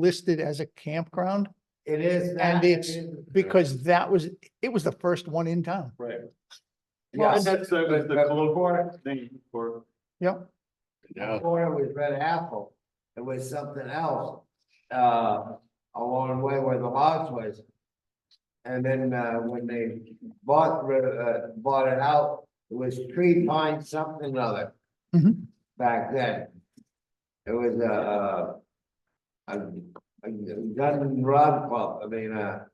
listed as a campground? It is. And that, it's it is- Because that was, it was the first one in town. Right. Well, Yes, that was uh, but- the but colloquial before- thing for. Yep. Before it was Red Apple, it was something else, uh, along the way where the lodge was. And then, uh, when they bought, rid- uh, bought it out, it was Tree Pine something other. Mhm. Back then. It was, uh, a, a gun and rod club, I mean, uh.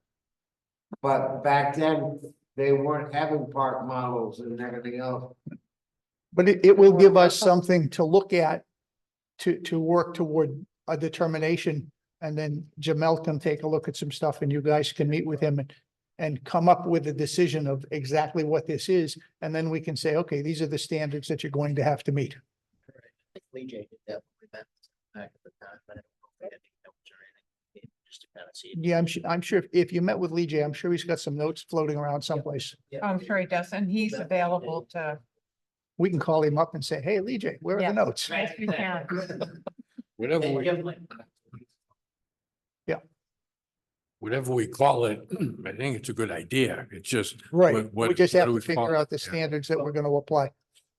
But back then, they weren't having park models and everything else. But it, it will give us something to look at to, to work toward a determination. And then Jamel can take a look at some stuff and you guys can meet with him and, and come up with a decision of exactly what this is. And then we can say, okay, these are the standards that you're going to have to meet. think Lee J did that when we met back at the time, but I don't know if we had any notes or anything. Just to kind of see. Yeah, I'm sure, I'm sure if- if you met with Lee J, I'm sure he's got some notes floating around someplace. I'm sure he does, and he's Yeah. available to. We can call him up and say, hey, Lee J, where are Yeah. the notes? Yes, we can. Whatever And we, give like- whatever we call it, I think it's a good idea. It's just. Right, what- we what- just what have do to we follow? figure out the Yeah. standards that we're gonna apply.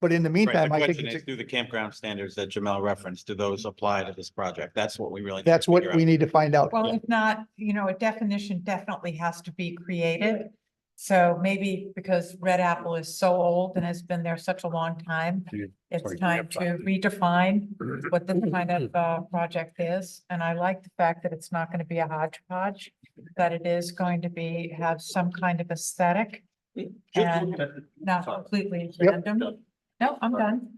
But in the Right, meantime, the I think question it's, is, do the campground standards that Jamel referenced, do those apply to this project? That's what we really. need to that's what figure we out. need to find out. Well, if not, you know, a definition definitely has to be created. So maybe because Red Apple is so old and has been there such a long time, Yeah, it's sorry, time to grandfather. redefine what this kind of uh project is. And I like the fact that it's not going to be a hodgepodge, that it is going to be, have some kind of aesthetic, Just look at- not Sorry. completely Yep. random. No, I'm done.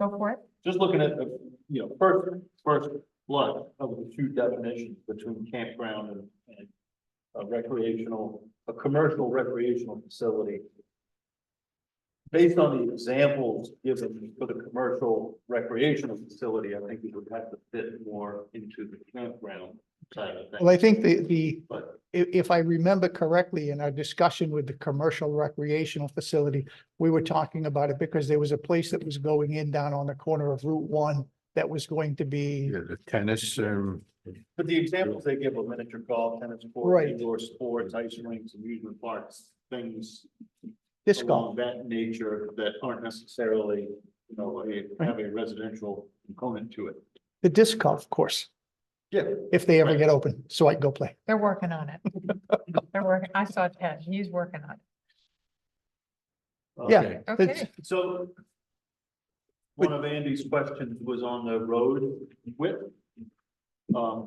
Go for it. just looking at, the, you know, first, first blood of the two definitions between campground and, and a recreational, a commercial recreational facility. Based on the examples given for the commercial recreational facility, I think it would have to fit more into the campground side of Well, I things. think the, the, But if, if I remember correctly, in our discussion with the commercial recreational facility, we were talking about it because there was a place that was going in down on the corner of Route One that was going to be, Yeah, the tennis, um, But the examples they give of miniature golf, tennis court, Right. indoor sports, ice rinks, amusement parks, things this golf. along That nature that aren't necessarily, you know, a, have a residential component to it. the disc golf course, Yeah. if they ever Right. get open, so I can go play. They're working on it. They're working, I saw Ted, he's working on Yeah, okay. it. That's- Okay, So one of Andy's questions was on the road width. Um,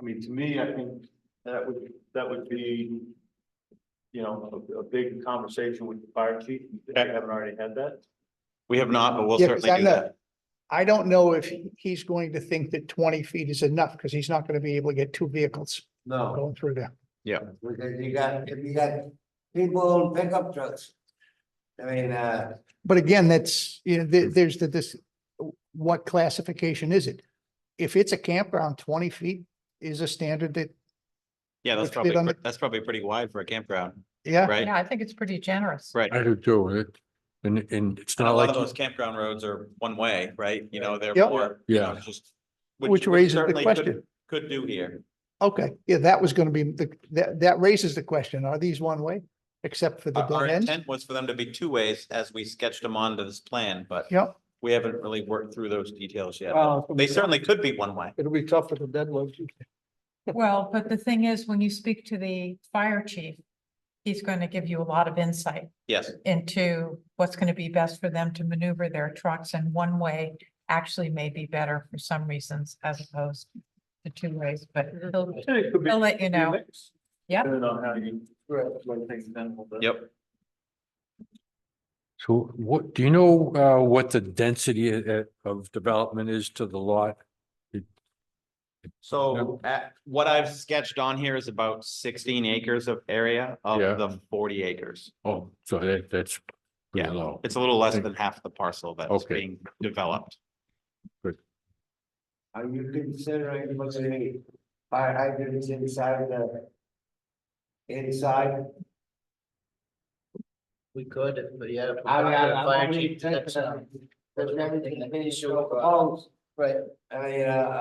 I mean, to me, I think that would, that would be, you know, a, a big conversation with the fire chief. I haven't already had that. We have not, but we'll Yeah, 'cause certainly I'm do not- that. I don't know if he's going to think that twenty feet is enough, because he's not gonna be able to get two vehicles No, going through there. because you got, if you got people in pickup trucks. I mean, uh, But again, that's, you know, there, there's the, this, what classification is it? If it's a campground, twenty feet is a standard that, Yeah, Which that's bit probably, on the- pre- that's probably pretty wide for a campground, yeah, right? yeah, I think it's pretty generous. Right. I do do it. And, and it's not A lot of like, those campground roads are one way, right? You know, they're. Yep. more, you know, yeah, Just. which raises the certainly could- question. Could do here. Okay, yeah, that was gonna be, the that, that raises the question, are these one-way, except for the Our our dead end? intent was for them to be two ways as we sketched them onto this plan, but Yep, Uh, we haven't really worked through those details yet. Well, They certainly could be one way. it'll be tough Uh, for the deadlift. Well, but the thing is, when you speak to the fire chief, he's going to give you a lot of insight Yes, into what's going to be best for them to maneuver their trucks and one way actually may be better for some reasons as opposed to two ways, but he'll, It could be. he'll let you know. Yep. Depending on how you. Like things done a little bit. yep. so what, do you know, uh, what the density uh, of development is to the lot? So at, what I've sketched on here is about sixteen acres of area of Yeah. the forty acres. Oh, so that, that's pretty Yeah, low. It's a little less Thank- than half the parcel that's Okay. being developed. are uh, you considering putting fire hydrants inside the? Inside, We could, if- but yeah. if we I mean, got a I'm fire only chief, that's, thinking uh, of- there's everything That's being sure. proposed, I mean, uh,